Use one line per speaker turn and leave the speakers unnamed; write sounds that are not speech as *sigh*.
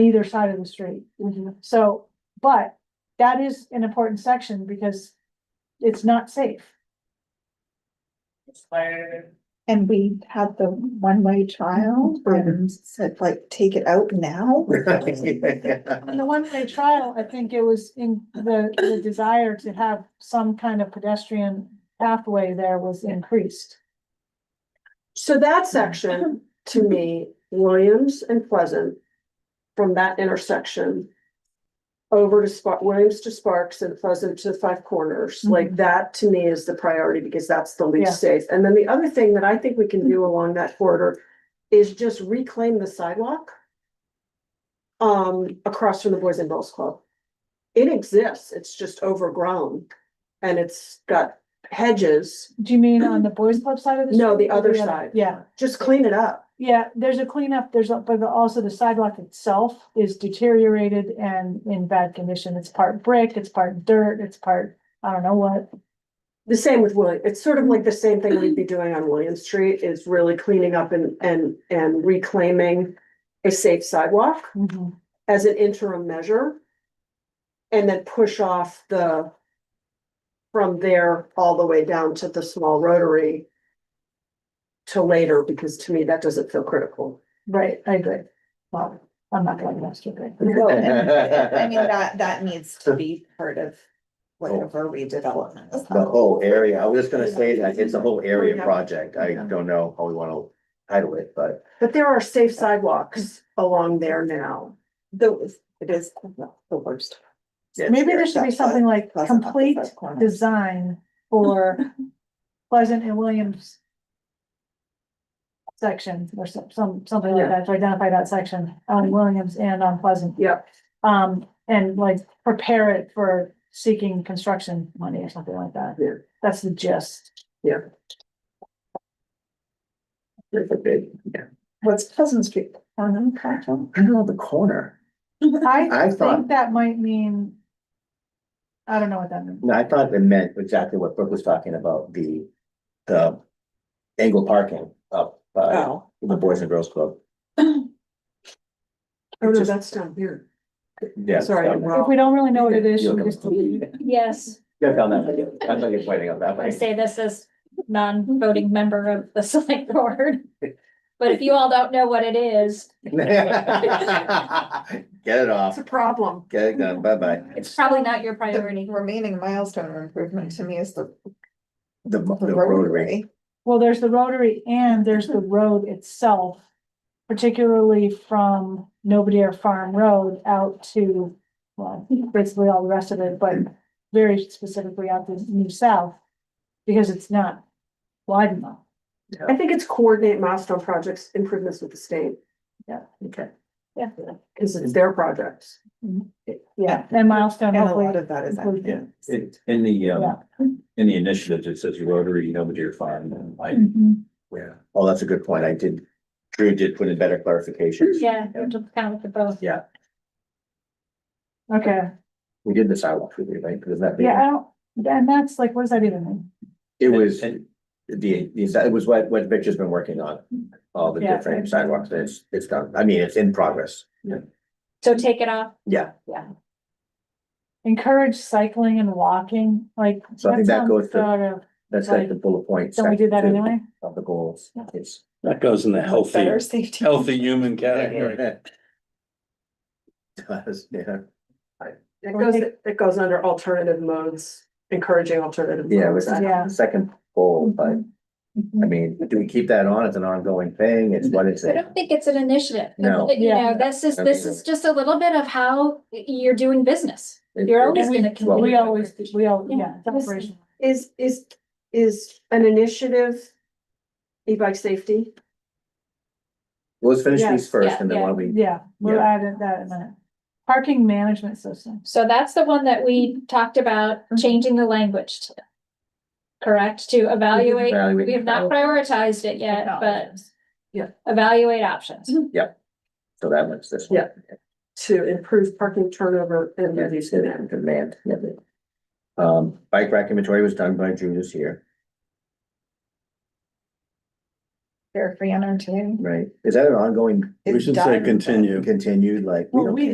either side of the street.
Mm-hmm.
So, but that is an important section because it's not safe.
It's where-
And we had the one-way
Oh,
trial and said like, take it out
*laughs*
now.
In the one-way trial, I think it was in the, the desire to have some kind of pedestrian pathway there was increased.
So that section, to me, *laughs* Williams and Pleasant, from that intersection. Over to Spark, Williams to Sparks and Pleasant to Five Corners, like that to me is the priority because that's the
Yeah.
least safe. And then the other thing that I think we can do along that corridor is just reclaim the sidewalk. Um, across from the Boys and Girls Club. It exists, it's just overgrown. And it's got hedges,
Do you mean on the boys club side of the?
No,
street
the
or
other side.
Yeah,
just clean it up.
yeah, there's a cleanup, there's, a- but the- also the sidewalk itself is deteriorated and in bad condition. It's part brick, it's part dirt, it's part, I don't know what.
The same with William, it's sort of like the same thing we'd be doing on William Street is really cleaning up and, and, and reclaiming a safe sidewalk as an interim measure. And then push off the from there all the way down to the small rotary to later, because to me, that doesn't feel critical.
Right, I agree. Well, I'm not going to ask you.
I mean, that, that needs to be part of whatever redevelopment. is
The
on.
whole area, I was just gonna say that, it's a whole area project, I don't know how we wanna title it, but.
But there are safe sidewalks along there now.
Those, it is the worst.
Maybe there should be something like
Pleasant off the
complete
front corner.
design for Pleasant and Williams. Section or some, some, something like
Yeah.
that to identify that section on Williams and on Pleasant.
Yep.
Um, and like prepare it for seeking construction money or something like that.
Yeah.
That's the gist.
What's Pleasant Street? Farnham Common?
I know the corner,
I
I
think
thought-
that might mean. I don't know what that means.
no, I thought it meant exactly what Brooke was talking about, the, the angle parking up by
Oh,
the Boys and Girls Club.
Oh, no, that's down here.
Yeah.
Sorry, I'm
down there.
If we
wrong.
don't really know what it is,
You're
should we just delete it?
Yes,
Yeah, down that way, I thought you were pointing out that
I
way. *laughs*
say this as non-voting member of the *laughs* select board. But if you all don't know what it is,
Get it
That's
off,
a problem.
get it done, bye-bye.
it's probably not your
The
priority.
remaining milestone of improvement to me is the
The, the
the
rotary.
rotary.
Well, there's the rotary and there's the road itself, particularly from Nobody Air Farm Road out to, well, basically all the rest of it, but very specifically out to New South, because it's not wide enough.
I think it's coordinate milestone projects improvements with the state.
Yeah.
Okay.
Yeah.
Cause it's their projects.
Yeah, and milestone,
And a lot
hopefully.
of that is.
include-
Yeah, it, in the, um, in the initiatives, it says Rotary, Nobodyer Farm, and like,
Mhm.
Yeah, oh, that's a good point. I did, Drew did put in better clarifications.
Yeah, you're just kind of the both.
Okay,
We did the sidewalk, we did, right? Because that.
yeah, I don't, and that's like, what does that even mean?
It was
And-
the, the, it was what, what Victor's been working on, all the
Yeah.
different sidewalks. It's, it's done. I mean, it's in progress.
So take it off.
Yeah,
Encourage cycling and walking, like.
So I think that
sounds
goes to-
sort of-
that's like the bullet point.
Don't we do that
section two
anyway?
Of the goals. It's.
That goes in the healthy,
Better safety.
healthy human category.
Does, yeah,
It goes, it goes under alternative modes, encouraging alternative.
yeah, it was
modes.
Yeah. Mm-hmm.
the second goal, but I mean, do we keep that on? It's an ongoing thing. It's what is
I
it?
don't think it's an initiative.
No.
You
Yeah.
know, this is, this is just a little bit of how you're doing business. You're always gonna
Well,
continue.
We always, we all, yeah,
Yeah.
separation.
Is, is, is an initiative e-bike safety?
Well, Let's finish
Yes,
these first and then
yeah,
why don't we
Yeah, we'll
Yeah.
add it- that in a minute. Parking management system.
So that's the one that we talked about changing the language to. Correct, to evaluate,
evaluate.
we have not prioritized it yet, but evaluate options.
So that one's this
Yeah.
one.
To improve parking turnover and
Yeah,
reduce
these
demand.
demand, demand. yeah. Um, bike rack inventory was done by June this year.
Fair Fiona too.
right? Is that an ongoing,
It's
We should say
done.
continue.
continued, like? we
Well,
don't
we-